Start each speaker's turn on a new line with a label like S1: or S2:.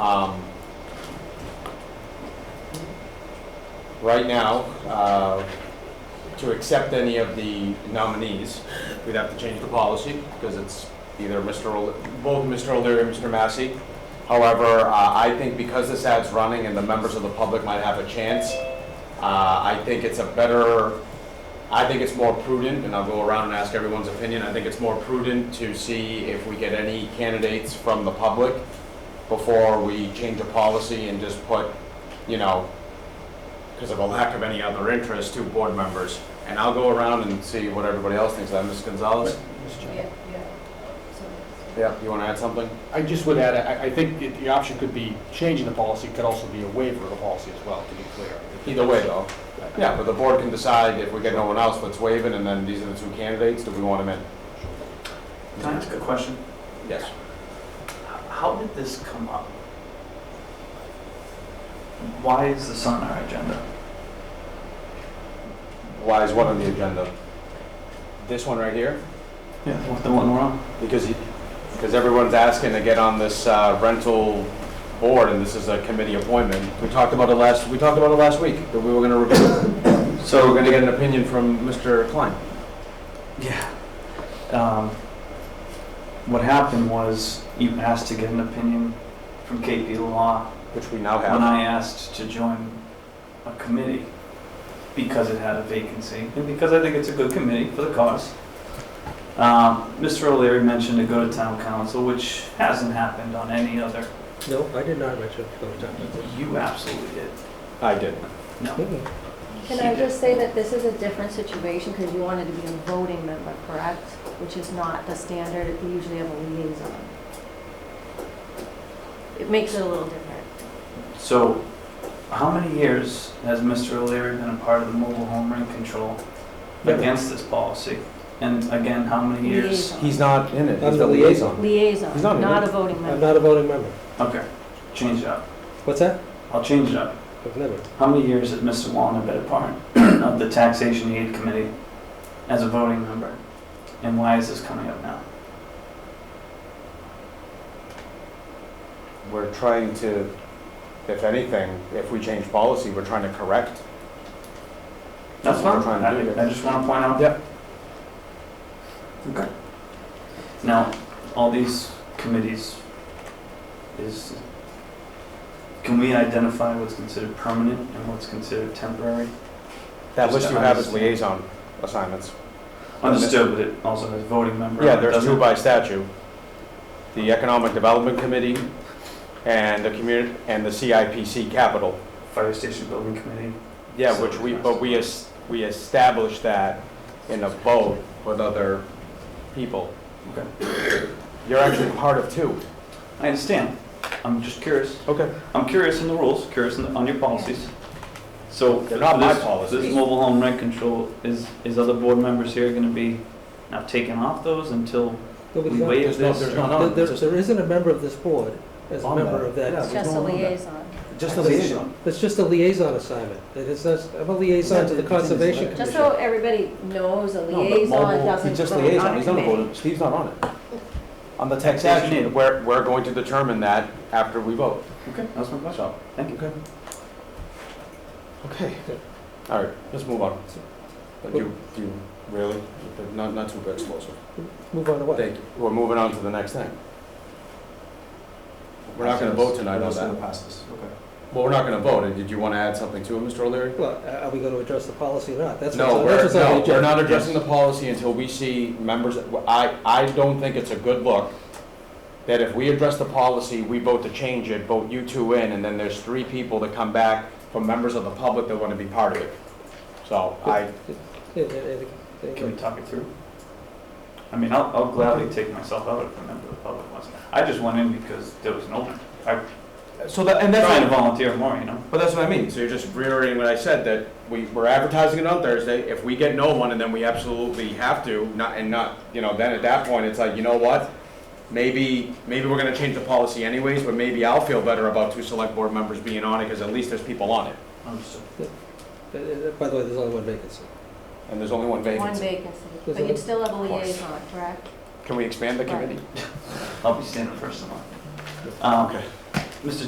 S1: Um, Right now, uh, to accept any of the nominees, we'd have to change the policy because it's either Mr., O'Le- both Mr. O'Leary and Mr. Massey. However, uh, I think because this ad's running and the members of the public might have a chance, uh, I think it's a better, I think it's more prudent, and I'll go around and ask everyone's opinion, I think it's more prudent to see if we get any candidates from the public before we change a policy and just put, you know, because of a lack of any other interest, two board members. And I'll go around and see what everybody else thinks. That Ms. Gonzalez?
S2: Yeah, yeah. So-
S1: Yeah. You want to add something?
S3: I just would add, I, I think it- the option could be changing the policy, could also be a waiver of the policy as well, to be clear.
S1: Either way, though. Yeah, but the board can decide if we get no one else, let's waive it, and then these are the two candidates. Do we want them in?
S4: Can I ask a question?
S1: Yes.
S4: H- How did this come up? Why is this on our agenda?
S1: Why is one on the agenda? This one right here?
S4: Yeah, what the one we're on?
S1: Because, because everyone's asking to get on this uh, rental board, and this is a committee appointment. We talked about it last, we talked about it last week, that we were gonna review. So we're gonna get an opinion from Mr. Klein.
S4: Yeah. Um, What happened was you asked to get an opinion from KP Law
S1: Which we now
S4: when
S1: have.
S4: I asked to join a committee because it had a vacancy and because I think it's a good committee for the cause. Um, Mr. O'Leary mentioned to go to town council, which hasn't happened on any other.
S5: No, I did not mention it those times.
S4: You absolutely did.
S1: I did.
S4: No.
S2: Can
S4: He
S2: I
S4: did.
S2: just say that this is a different situation because you wanted to be a voting member, correct? Which is not the standard, we usually have a liaison. It makes it a little different.
S4: So, how many years has Mr. O'Leary been a part of the mobile home rent control
S5: Never.
S4: against this policy? And again, how many years?
S2: Liaison.
S1: He's not in it, he's
S5: I'm
S1: the
S5: the
S1: liaison. He's not
S2: Liaison,
S1: a
S2: not
S1: vote-
S2: a voting
S5: I'm
S2: member.
S5: not a voting member.
S4: Okay, change it up.
S5: What's that?
S4: I'll change it up.
S5: I've never.
S4: How many years has Mr. Wallner been a part of the taxation aid committee as a voting member? And why is this coming up now?
S1: We're trying to, if anything, if we change policy, we're trying to correct.
S4: That's fine.
S1: We're trying to do
S4: I, I
S1: this.
S4: just want to point out.
S1: Yep.
S4: Okay. Now, all these committees is, can we identify what's considered permanent and what's considered temporary?
S1: That
S4: Just
S1: list you
S4: to
S1: have is
S4: understand.
S1: liaison assignments.
S4: Understood, but it also has voting member.
S1: Yeah, there's two
S4: doesn't-
S1: by statute. The Economic Development Committee and the community, and the CIPC Capital.
S4: Fire station building committee.
S1: Yeah, which we, but we, es- we established that in a vote with other people.
S4: Okay.
S1: You're actually part of two.
S4: I understand. I'm just curious.
S1: Okay.
S4: I'm curious in the rules, curious in the, on your policies. So.
S1: They're not my
S4: this-
S1: policies.
S4: This mobile home rent control, is, is other board members here gonna be now taking off those until we
S5: Nobody's on-
S4: waive
S1: There's no-
S4: this?
S1: there's
S4: or-
S1: not-
S5: There, there- there isn't a member of this board as a
S1: On
S5: member
S1: that.
S5: of
S1: Yeah.
S5: that.
S2: It's just a liaison.
S1: Just
S4: a liaison.
S5: It's just a liaison assignment. It is, not- I'm a liaison to the
S4: Yeah, it's-
S5: Conservation
S4: it's-
S2: Just
S5: Commission.
S2: so everybody knows, a
S1: No, but
S2: liaison
S1: mobile-
S2: doesn't
S1: He's just
S2: vote
S1: liaison,
S2: on a
S1: he's not a
S2: committee.
S1: voter, Steve's not on it. On the
S4: Taxation
S1: taxation,
S4: aid.
S1: we're, we're going to determine that after we vote.
S4: Okay, that's my question.
S1: So,
S4: Thank you.
S1: okay. All right, let's move on. But you, you, really, not, not too explosive.
S5: Move on to what?
S1: Thank you. We're moving on to the next thing. We're not gonna vote tonight on that. Well, we're not gonna vote. Did you want to add something to it, Mr. O'Leary?
S5: Well, uh, are- are we going to address the policy or not? That's
S1: No,
S5: what's
S1: we're,
S5: on- that's what's on the
S1: no, we're
S5: agenda.
S1: not addressing the policy until we see members, I, I don't think it's a good look that if we address the policy, we vote to change it, vote you two in, and then there's three people that come back from members of the public that want to be part of it. So I,
S5: Yeah, yeah, yeah, yeah.
S4: Can we talk it through? I mean, I'll, I'll gladly take myself out if a member of the public wants. I just went in because there was an opening. I
S1: so that, and
S4: trying to volunteer more, you know?
S1: But that's what I mean. So you're just reiterating what I said, that we, we're advertising it on Thursday. If we get no one and then we absolutely have to, not, and not, you know, then at that point, it's like, you know what? Maybe, maybe we're gonna change the policy anyways, but maybe I'll feel better about two select board members being on it, because at least there's people on it.
S4: Understood.
S5: Uh, uh, By the way, there's only one vacancy.
S1: And there's only one
S2: One
S1: vacancy.
S2: vacancy, but you'd still have a liaison, correct?
S1: Can we expand the committee?
S4: I'll be standing first in line. Um,
S1: Okay.
S4: Mr.